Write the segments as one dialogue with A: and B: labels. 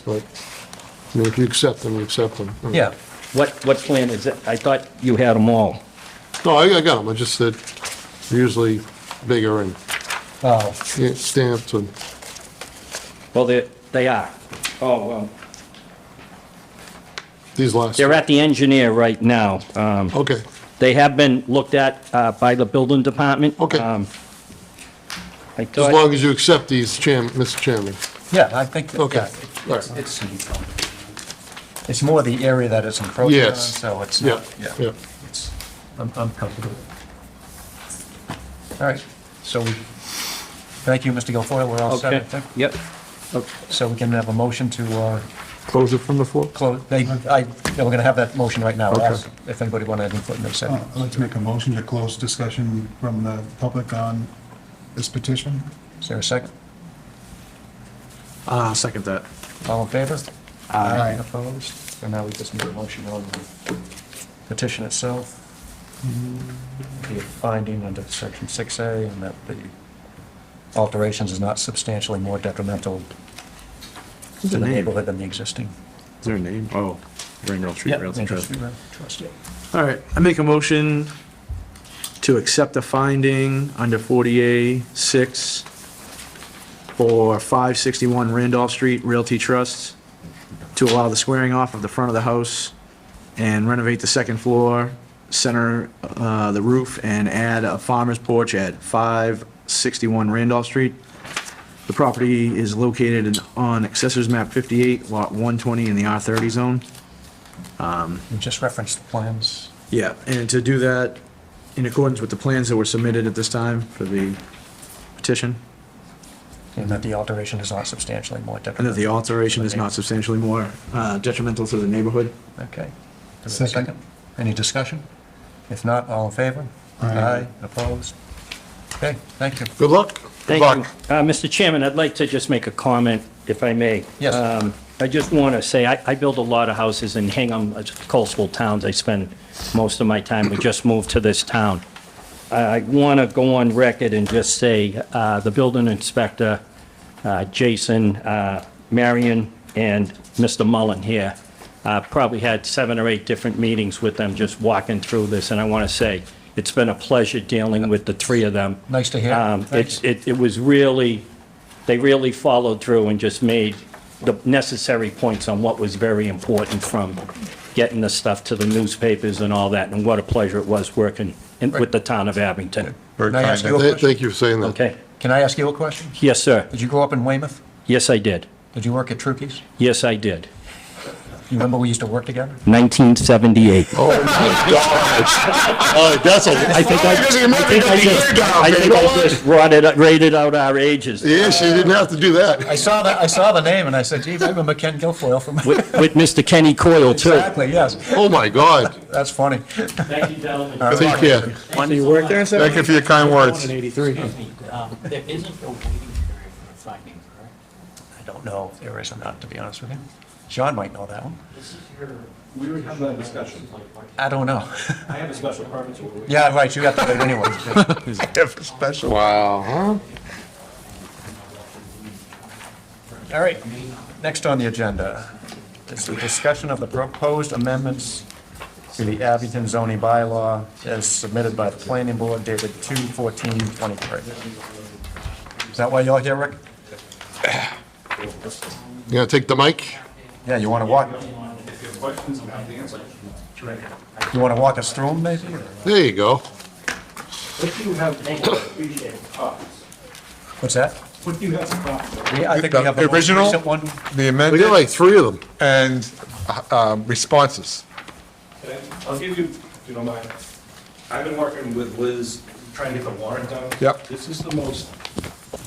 A: but, I mean, if you accept them, you accept them.
B: Yeah.
C: What, what plan is it? I thought you had them all.
A: No, I, I got them, I just said, usually bigger and
B: Oh,
A: yeah, stamped and,
C: Well, they, they are. Oh, well.
A: these last.
C: They're at the engineer right now. Um,
A: Okay,
C: They have been looked at uh, by the building department.
A: Okay.
C: Um, I
A: as
C: thought,
A: long as you accept these, Chairman, Mr. Chairman.
B: yeah, I think, that-
A: Okay,
B: yeah,
A: all
B: it's,
A: right.
B: it's, it's more the area that it's encroaching on,
A: Yes.
B: so it's
A: Yeah,
B: not,
A: yeah.
B: yeah. It's- I'm, I'm comfortable. All right, so we, thank you, Mr. Guilfoyle, we're all set, I
C: okay,
B: think.
C: yep.
B: So we can have a motion to, uh,
A: Close it from the floor?
B: close, they, I, yeah, we're gonna have that motion right now,
A: Okay.
B: Ask if anybody wanted to input in a
D: Uh,
B: second.
D: I'd like to make a motion to close discussion from the public on this petition.
B: Is there a second?
E: Uh, second that.
B: All in favor?
D: Aye.
B: Opposed? And now we just need a motion on the petition itself.
E: Mm-hmm.
B: The finding under section 6A and that the alterations is not substantially more detrimental to
E: The
B: the
E: name.
B: neighborhood than the existing.
E: Is there a name? Oh, Ringgold Street Rails
B: Yep,
E: and Trust.
B: Street Rail Trust.
E: All right, I make a motion to accept the finding under 40A 6 for 561 Randolph Street Realty Trust to allow the squaring off of the front of the house and renovate the second floor, center uh, the roof, and add a farmer's porch at 561 Randolph Street. The property is located in- on Accessors Map 58, Lot 120 in the R30 zone.
B: You just referenced the plans.
E: Yeah, and to do that in accordance with the plans that were submitted at this time for the petition,
B: And that the alteration is not substantially more
E: and that the
B: detrimental.
E: alteration is not substantially more uh, detrimental to the neighborhood.
B: Okay. Is there a
D: Second.
B: second? Any discussion? If not, all in favor?
D: Aye.
B: Opposed? Okay, thank you.
A: Good luck.
C: Thank you. Uh, Mr. Chairman, I'd like to just make a comment, if I may.
B: Yes.
C: Um, I just want to say, I I build a lot of houses in Hingham, uh, coastal towns. I spend most of my time, we just moved to this town. I I want to go on record and just say, uh, the building inspector, uh, Jason, uh, Marion, and Mr. Mullen here, uh, probably had seven or eight different meetings with them, just walking through this, and I want to say, it's been a pleasure dealing with the three of them.
B: Nice to hear.
C: Um,
B: Thank
C: It's, it it was really, they really followed through and just made the necessary points on what was very important from getting the stuff to the newspapers and all that, and what a pleasure it was working in- with the town of Abington.
B: Can I ask you a question?
A: Thank you for saying that.
C: Okay?
B: Can I ask you a question?
C: Yes, sir.
B: Did you grow up in Weymouth?
C: Yes, I did.
B: Did you work at Trukey's?
C: Yes, I did.
B: You remember we used to work together?
C: 1978.
A: Oh, my God.
C: Oh, that's a, I think I, I think I just, I think I just rotted, rated out our ages.
A: Yeah, she didn't have to do
B: I
A: that.
B: saw that, I saw the name and I said, gee, I remember Ken Guilfoyle from.
C: With, with Mr. Kenny Coyle, too.
B: Exactly, yes.
A: Oh, my God.
B: That's funny.
F: Thank you, gentlemen.
A: Take care.
F: Thank you work there?
A: Thank you for your kind words.
E: In 83.
F: um, There isn't a waiting period for finding, correct?
B: I don't know if there is or not, to be honest with you. John might know that one.
F: This is your.
G: We would have that discussion.
B: I don't know.
G: I have a special permit to
B: Yeah, right, you got to do it anyway.
A: Wow,
B: All right, next on the agenda is the discussion of the proposed amendments to the Abington zoning bylaw as submitted by the planning board dated 2/14/23. Is that why you're here, Rick?
A: huh? You gonna take the mic?
B: Yeah, you want to walk,
G: If you have questions, I'm happy to answer.
B: you want to walk us through them, maybe?
A: There you go.
G: What do you have for copies?
B: What's that?
G: What do you have for copies?
B: We- I think we have the
H: The
B: most
H: original?
B: recent one.
H: The
A: We got
H: amended
A: like three of them.
H: and uh, responses.
G: Okay, I'll give you, if you don't mind. I've been working with Liz, trying to get the warrant done.
H: Yep.
G: This is the most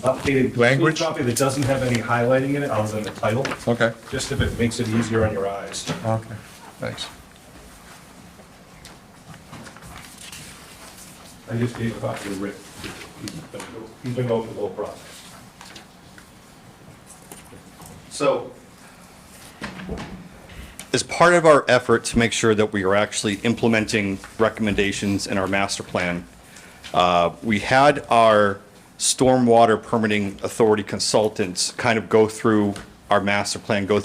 G: updated.
H: Language?
G: Copy that doesn't have any highlighting in it, other than the title,
H: Okay.
G: just if it makes it easier on your eyes.
B: Okay, thanks.
G: I just gave a copy to Rick. He's been over the whole process.
I: So, as part of our effort to make sure that we are actually implementing recommendations in our master plan, uh, we had our stormwater permitting authority consultants kind of go through our master plan, go